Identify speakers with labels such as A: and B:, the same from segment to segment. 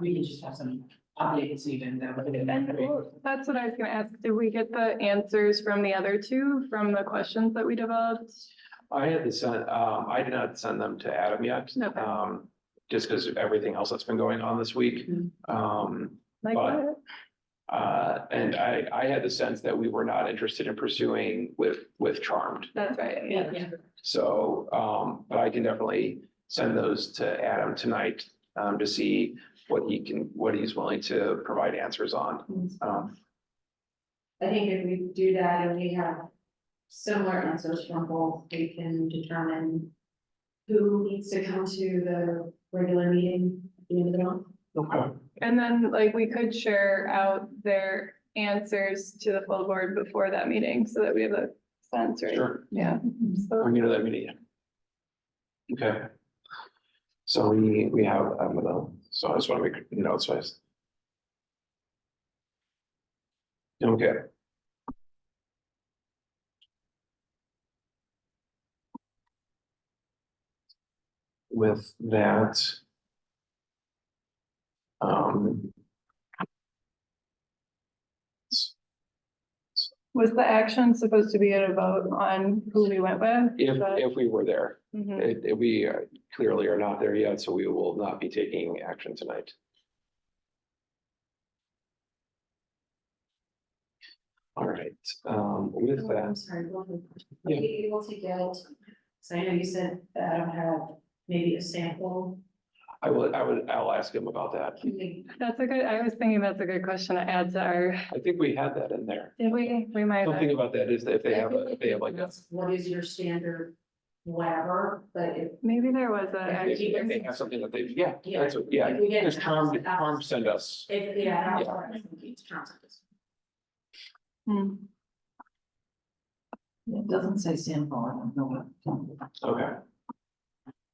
A: we can just have some updates even though.
B: And well, that's what I was gonna ask. Did we get the answers from the other two, from the questions that we developed?
C: I had to send, um, I did not send them to Adam yet,
B: Okay.
C: um, just because of everything else that's been going on this week.
A: Mhm.
C: Um,
B: Like
C: But-
B: what?
C: uh, and I, I had the sense that we were not interested in pursuing with, with Charmed.
B: That's right, yeah.
A: Yeah,
C: So, um, but I can definitely send those to Adam tonight, um, to see what he can, what he's willing to provide answers on. Um,
D: I think if we do that and we have similar answers from both, we can determine who needs to come to the regular meeting at the end of the month.
C: okay.
B: And then like we could share out their answers to the full board before that meeting so that we have a sense, right?
C: Sure,
B: Yeah. So,
C: I'm gonna let me Okay. So we, we have, I don't know, so I just wanna make notes first. Okay. With that. Um,
B: was the action supposed to be at a vote on who we went with?
C: if,
B: But-
C: if we were there.
B: Mhm.
C: It, it- we uh, clearly are not there yet, so we will not be taking action tonight. All right, um, with
D: Oh, I'm
C: that,
D: sorry, one more question. Are
C: Yeah.
D: we able to get, so I know you said that I don't have maybe a sample,
C: I will, I would, I'll ask him about that.
D: can we,
B: That's a good, I was thinking that's a good question to add to our,
C: I think we had that in there.
B: did we, we might
C: Something
B: have.
C: about that is that if they have, a- if they have like a,
D: what is your standard whatever, but if
B: Maybe there was a.
D: Yeah,
C: if
B: action.
C: if they have something that they, yeah,
D: Yeah.
C: that's, what- yeah,
D: If we get
C: because Charm,
D: asked-
C: Charm sent us.
D: If, yeah,
C: Yeah.
D: I think it's
B: Hmm.
A: it doesn't say sample, I don't know what.
C: Okay.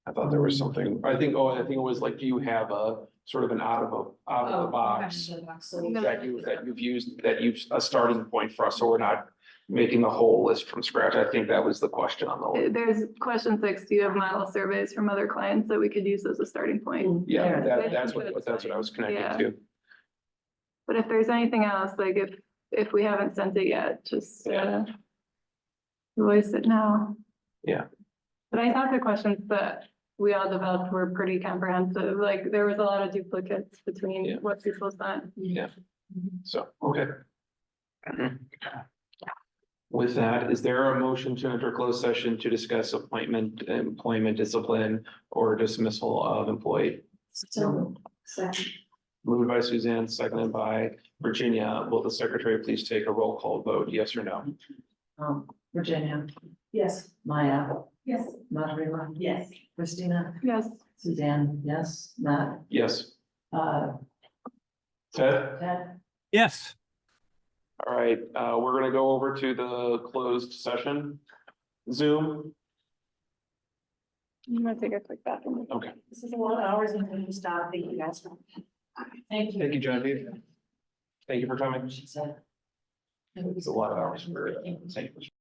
C: I thought there was something, I think, oh, I think it was like, do you have a sort of an out of a, out
D: Oh,
C: of the box? that you, that you've used, that you've a starting point for us, so we're not making the whole list from scratch. I think that was the question on the
B: Uh,
C: list.
B: There's question six, do you have model surveys from other clients that we could use as a starting point?
C: Yeah,
A: Yeah.
C: that, that's what, that's what I was connecting to.
B: But if there's anything else, like if, if we haven't sent it yet, just uh, voice it now.
C: Yeah.
B: But I thought the questions that we all developed were pretty comprehensive, like there was a lot of duplicates
C: Yeah.
B: between what people sent.
C: So, okay. With that, is there a motion to enter closed session to discuss appointment, employment discipline or dismissal of employee?
D: So, second.
C: Moved by Suzanne, seconded by Virginia. Will the secretary please take a roll call vote, yes or no?
A: Um, Virginia,
D: Yes.
A: Maya,
D: Yes.
A: Margarita,
D: Yes.
A: Christina,
B: Yes,
A: Suzanne, yes, Matt,
C: Yes.
A: uh,
C: Ted?
A: Ted.
E: Yes.
C: All right, uh, we're gonna go over to the closed session. Zoom,
B: I'm gonna take a quick bathroom.
C: okay.
D: This is a lot of hours and we stop, thank you guys.
A: Thank you.
C: Thank you, Genevieve. Thank you for coming.
A: She said.
C: It's a lot of hours for, uh, thank you.